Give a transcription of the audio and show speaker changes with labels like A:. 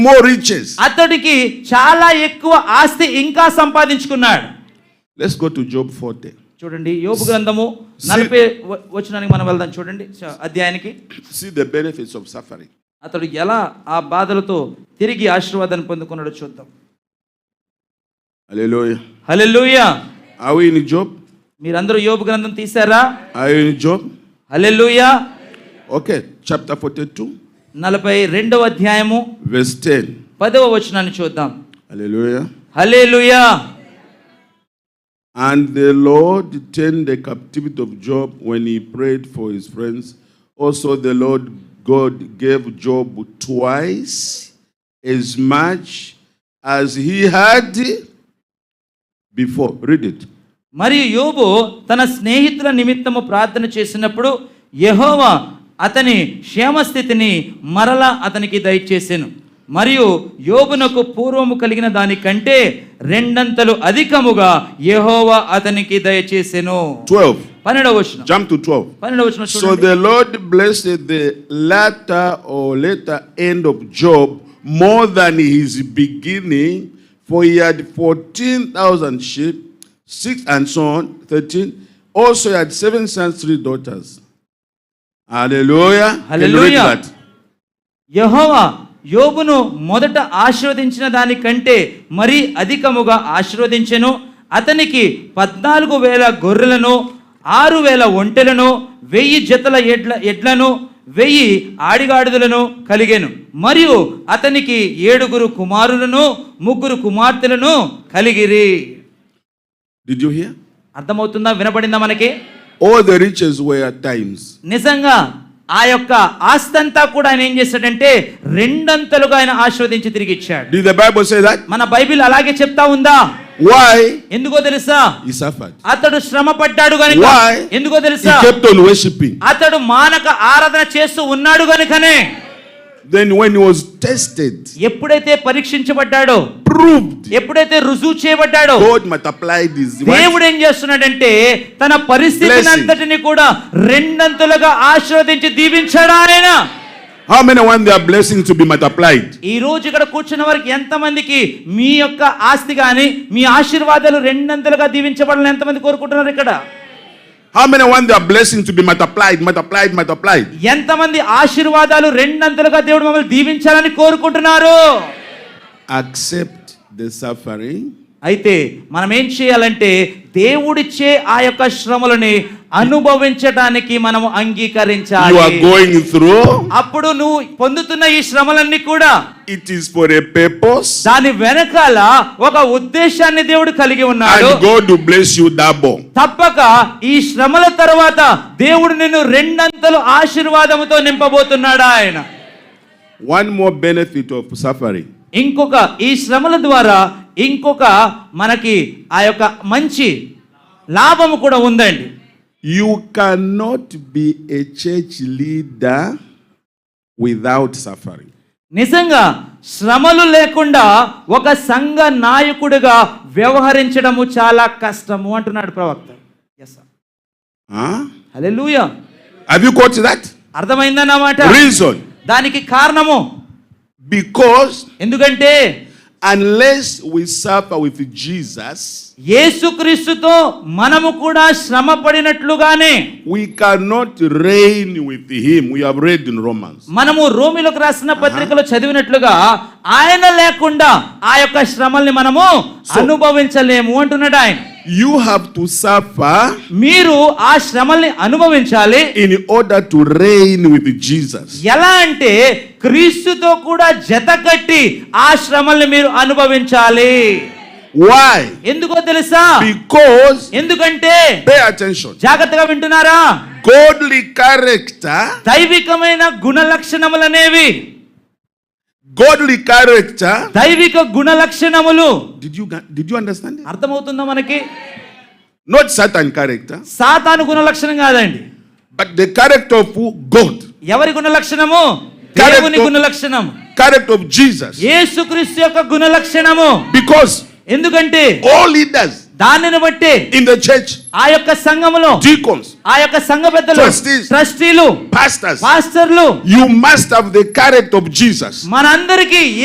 A: more riches.
B: అతడికి చాలా ఎక్కువ ఆస్తి ఇంకా సంపాదించుకున్నాడు
A: Let's go to Job 40.
B: చూడండి యోబు గ్రంథము నలభై వ- వచనానికి మనం వెళ్దాం చూడండి చ- అధ్యాయానికి
A: See the benefits of suffering.
B: అతడు ఎలా ఆ బాధలతో తిరిగి ఆశీర్వాదాన్ని పొందుకున్నాడో చూద్దాం
A: Hallelujah.
B: Hallelujah
A: Are we in Job?
B: మీరందరూ యోబు గ్రంథం తీశారా
A: Are you in Job?
B: Hallelujah
A: Okay, chapter 42,
B: నలభై రెండవ అధ్యాయము
A: verse 10.
B: పదవ వచనాన్ని చూద్దాం
A: Hallelujah.
B: Hallelujah
A: And the Lord turned the captivity of Job when he prayed for his friends. Also, the Lord God gave Job twice as much as he had before. Read it.
B: మరియు యోబు తన స్నేహితుల నిమిత్తము ప్రార్థన చేసినప్పుడు యెహోవా అతని క్షేమస్థితిని మరలా అతనికి దయచేసెను మరియు యోబునకు పూర్వము కలిగిన దానికంటే రెండంతలు అధికముగా యెహోవా అతనికి దయచేసెను
A: 12.
B: పన్నెండవ వచనం
A: Jump to 12.
B: పన్నెండవ వచనం
A: So
B: చూడండి
A: the Lord blessed the latter or later end of Job more than his beginning, for he had 14,000 sheep, six and so on, 13. Also, he had seven sons, three daughters. Hallelujah. Can you read
B: Hallelujah.
A: that?
B: యెహోవా యోబును మొదట ఆశీర్వదించిన దానికంటే మరీ అధికముగా ఆశీర్వదించెను అతనికి పద్నాలుగు వేల గొర్రెలను ఆరు వేల ఒంటెలను వెయ్యి జతల ఎడ్ల ఎడ్లను వెయ్యి ఆడిగాడిదలను కలిగెను మరియు అతనికి ఏడుగురు కుమారులను ముగ్గురు కుమార్తెలను కలిగిరి
A: Did you hear?
B: అర్థమవుతుందా వినపడిందా మనకి
A: All the riches were at times.
B: నిజంగా ఆ యొక్క ఆస్తంతా కూడా ఆయన ఏం చేశాడంటే రెండంతలుగా ఆయన ఆశీర్వదించి తిరిగి ఇచ్చాడు
A: Did the Bible say that?
B: మన బైబిల్ అలాగే చెప్తా ఉందా
A: Why
B: ఎందుకో తెలుసా
A: he suffered?
B: అతడు శ్రమ పడ్డాడు గనుక
A: Why?
B: ఎందుకో
A: He
B: తెలుసా
A: kept on worshipping.
B: అతడు మానక ఆరాధన చేస్తూ ఉన్నాడు గనుకనే
A: Then, when he was tested,
B: ఎప్పుడైతే పరీక్షించబడ్డాడో
A: proved,
B: ఎప్పుడైతే రుజువు చేయబడ్డాడో
A: God multiplied his wealth.
B: దేవుడు ఏం చేస్తున్నాడంటే తన పరిస్థితిని
A: Blessing.
B: అంతటిని కూడా రెండంతలుగా ఆశీర్వదించి దీవించాడు ఆయన
A: How many want their blessings to be multiplied?
B: ఈ రోజు ఇక్కడ కూర్చున్న వారికి ఎంతమందికి మీ యొక్క ఆస్తి కానీ మీ ఆశీర్వాదాలు రెండంతలుగా దీవించబడాలని ఎంతమంది కోరుకుంటున్నారు ఇక్కడ
A: How many want their blessings to be multiplied, multiplied, multiplied?
B: ఎంతమంది ఆశీర్వాదాలు రెండంతలుగా దేవుడు మమ్మల్ని దీవించాలని కోరుకుంటున్నారు
A: Accept the suffering
B: అయితే మనం ఏం చేయాలంటే దేవుడిచ్చే ఆ యొక్క శ్రమలని అనుభవించడానికి మనం
A: you
B: అంగీకరించాలి
A: are going through.
B: అప్పుడు నువ్వు పొందుతున్న ఈ శ్రమలన్నీ కూడా
A: It is for a purpose,
B: దాని వెనకాల ఒక ఉద్దేశాన్ని దేవుడు కలిగి ఉన్నాడు
A: and God will bless you double.
B: తప్పక ఈ శ్రమల తర్వాత దేవుడు నిన్ను రెండంతలు ఆశీర్వాదముతో నింపబోతున్నాడు ఆయన
A: One more benefit of suffering
B: ఇంకొక ఈ శ్రమల ద్వారా ఇంకొక మనకి ఆ యొక్క మంచి లాభము కూడా ఉందండి
A: you cannot be a church leader without suffering.
B: నిజంగా శ్రమలు లేకుండా ఒక సంఘ నాయకుడిగా వ్యవహరించడము చాలా కష్టము అంటున్నాడు ప్రవక్త
A: Huh?
B: Hallelujah
A: Have you got that?
B: అర్థమైందా నా మాట
A: Reason
B: దానికి కారణము
A: because
B: ఎందుకంటే
A: unless we suffer with Jesus,
B: యేసుక్రీస్తుతో మనము కూడా శ్రమ పడినట్లుగానే
A: We cannot reign with him. We have read in Romans.
B: మనము రోమిలకు రాసిన పత్రికలో చదివినట్లుగా ఆయన లేకుండా ఆ యొక్క శ్రమల్ని మనము
A: So-
B: అనుభవించలేము అంటున్నాడు ఆయన
A: You have to suffer
B: మీరు ఆ శ్రమల్ని అనుభవించాలి
A: in order to reign with Jesus.
B: ఎలా అంటే క్రీస్తుతో కూడా జత కట్టి ఆ శ్రమల్ని మీరు అనుభవించాలి
A: Why?
B: ఎందుకో తెలుసా
A: Because,
B: ఎందుకంటే
A: pay attention,
B: జాగ్రత్తగా వింటున్నారా
A: godly character,
B: దైవికమైన గుణ లక్షణములు అనేవి
A: godly character.
B: దైవిక గుణ లక్షణములు
A: Did you, did you understand it?
B: అర్థమవుతుందా మనకి
A: Not Satan character,
B: సాతాను గుణ లక్షణం కాదండి
A: but the character of who? God.
B: ఎవరి గుణ లక్షణము
A: Character.
B: దేవుని గుణ లక్షణం
A: Character of Jesus.
B: యేసుక్రీస్తు యొక్క గుణ లక్షణము
A: Because
B: ఎందుకంటే
A: all leaders
B: దానిని బట్టి
A: in the church,
B: ఆ యొక్క సంఘములో
A: deacons,
B: ఆ యొక్క సంఘ పెద్దలు
A: Trustees.
B: ట్రస్టీలు
A: pastors,
B: పాస్టర్లు
A: you must have the character of Jesus.
B: మనందరికీ